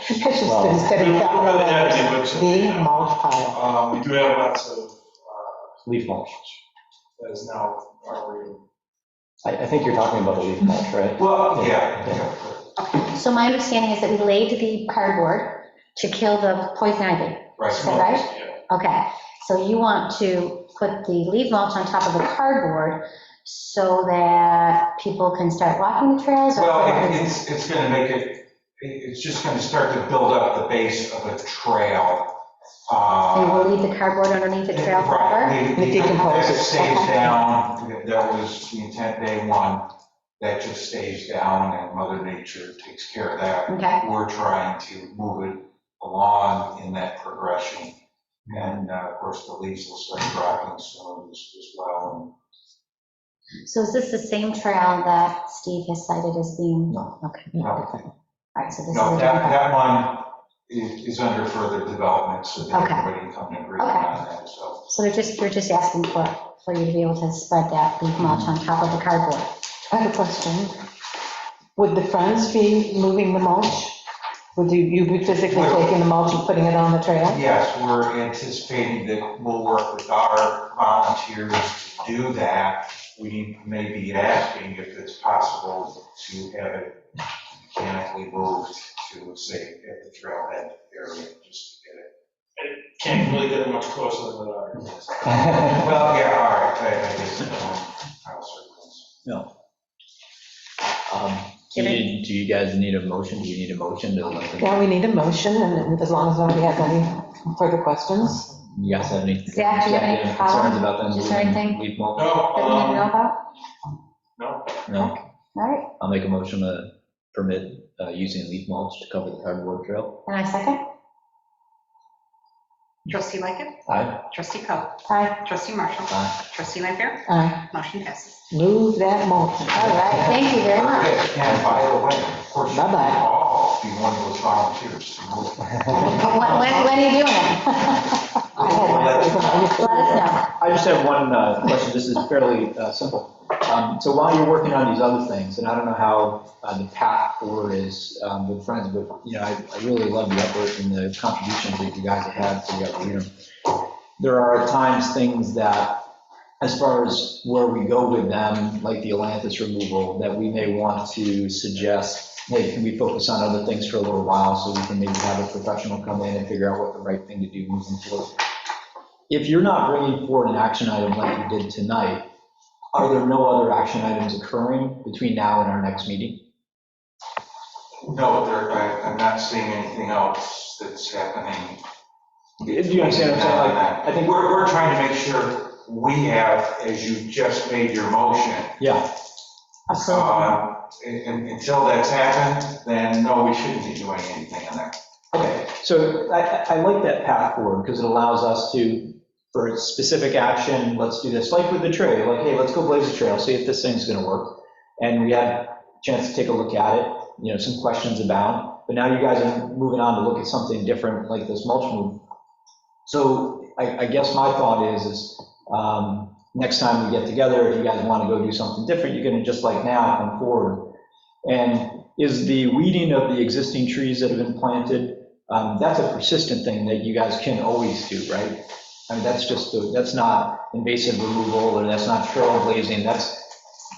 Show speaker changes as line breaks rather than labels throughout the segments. It's just instead
We
of
would
capital
rather have it,
letters,
but-
the mulch pile.
Um, We do have lots of, uh,
Leaf mulch.
that is now already.
I, I think you're talking about the leaf mulch, right?
Well,
yeah,
So my understanding is that we laid the cardboard to kill the poison ivy.
Right.
Is that right? Okay, so you want to put the leaf mulch on top of the cardboard so that people can start walking the trails? or-
Well, it- it's, it's going to make it, it- it's just going to start to build up the base of a trail.
So you
uh,
will leave the cardboard underneath the trail forever?
Right,
It decomposes.
That stays down, that was the intent day one, that just stays down and Mother Nature takes care of that.
Okay,
We're trying to move it along in that progression. And uh, of course, the leaves will start dropping soon as as well.
so is this the same trail that Steve has cited as being?
No.
Okay,
No,
all right, so this is.
No,
a
that,
different-
that one is is under further development, so that
Okay.
everybody can agree on that, so.
So they're just, you're just asking for, for you to be able to spread that leaf mulch on top of the cardboard?
I have a question. Would the friends be moving the mulch? Would you, you be physically taking the mulch and putting it on the trail?
Yes, we're anticipating that we'll work with our volunteers to do that. We may be asking if it's possible to have it mechanically moved to, say, at the trailhead area, just to get it.
Can't really get much closer than that.
Well, yeah, all right, I I guess, um, I'll circle.
Um, Do you, do you guys need a motion? Do you need a motion to let them,
Yeah, we need a motion, and as long as nobody has any further questions.
you guys have any?
Zach, do you have any
Concerns about them?
Is
moving
there anything?
Leaf mulch?
No,
That we didn't know
um,
about?
no,
No?
All right,
I'll make a motion to permit uh, using leaf mulch to cover the cardboard trail.
and I second?
Trustee Lickett,
Aye.
trustee Coe,
Aye.
trustee Marshall,
Aye.
trustee Lanfair,
Aye.
motion passes.
Move that mulch.
All right, thank you very much.
Okay, And by the way, of course, you can
Bye-bye.
all be one of those volunteers to move.
When, when- when are you doing it?
I had-
Let us know.
I just have one uh, question, this is fairly uh, simple. Um, So while you're working on these other things, and I don't know how uh, the path forward is um, with friends, but, you know, I I really love the effort and the contributions that you guys have had to the arena. There are at times things that, as far as where we go with them, like the Atlantis removal, that we may want to suggest, hey, can we focus on other things for a little while, so we can maybe have a professional come in and figure out what the right thing to do moving forward? if you're not bringing forward an action item like you did tonight, are there no other action items occurring between now and our next meeting?
No, there, I- I'm not seeing anything else that's happening
Do you understand what I'm saying? Like, I
I think
think,
we're, we're trying to make sure we have, as you just made your motion,
yeah, Oh.
uh, un- un- until that's happened, then no, we shouldn't be doing anything on that.
okay. So I, I- I like that path forward because it allows us to, for a specific action, let's do this, like with the trail, like, hey, let's go blaze a trail, see if this thing's going to work. And we had a chance to take a look at it, you know, some questions abound. But now you guys are moving on to look at something different like this mulch move. So I, I guess my thought is, is um, next time we get together, if you guys want to go do something different, you're going to just like now come forward. And is the weeding of the existing trees that have been planted, um, that's a persistent thing that you guys can always do, right? I mean, that's just, the- that's not invasive removal or that's not trail blazing, that's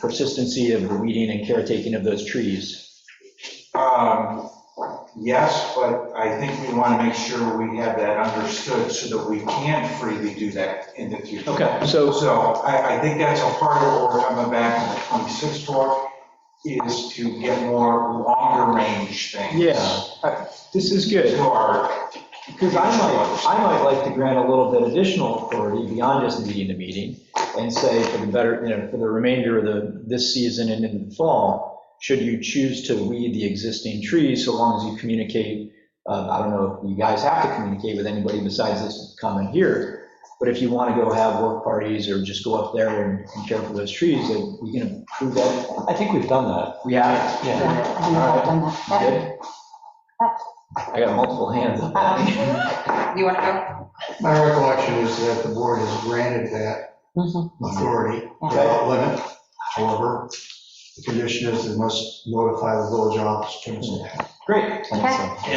persistency of the weeding and caretaking of those trees.
Um, Yes, but I think we want to make sure we have that understood so that we can freely do that in the future.
Okay, so,
So I, I think that's a part of what we're coming back in the 26th talk, is to get more longer range things.
yeah, I- this is good.
To our
Because I might, I might like to grant a little bit additional authority beyond just meeting the meeting and say for the better, you know, for the remainder of the, this season and in the fall, should you choose to weed the existing trees, so long as you communicate, uh, I don't know if you guys have to communicate with anybody besides this comment here, but if you want to go have work parties or just go up there and and care for those trees, then we can approve that.
I think we've done that.
We have,
Yeah, I think I've done that.
you good? I got multiple hands up.
Um, You want to go?
My recollection is that the board has granted that
Mhm.
authority without limit. However, the condition is they must notify the village office.
Great.
Okay.